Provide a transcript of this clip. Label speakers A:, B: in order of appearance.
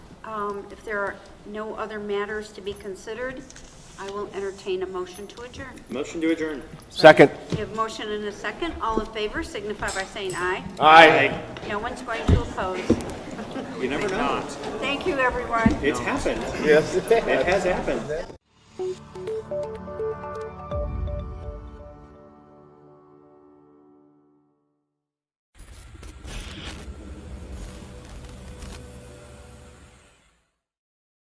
A: um, if there are no other matters to be considered, I will entertain a motion to adjourn.
B: Motion to adjourn.
C: Second.
A: We have motion and a second. All in favor signify by saying aye.
C: Aye.
A: No one's going to oppose.
B: You never know.
A: Thank you, everyone.
B: It's happened.
C: Yes.
B: It has happened.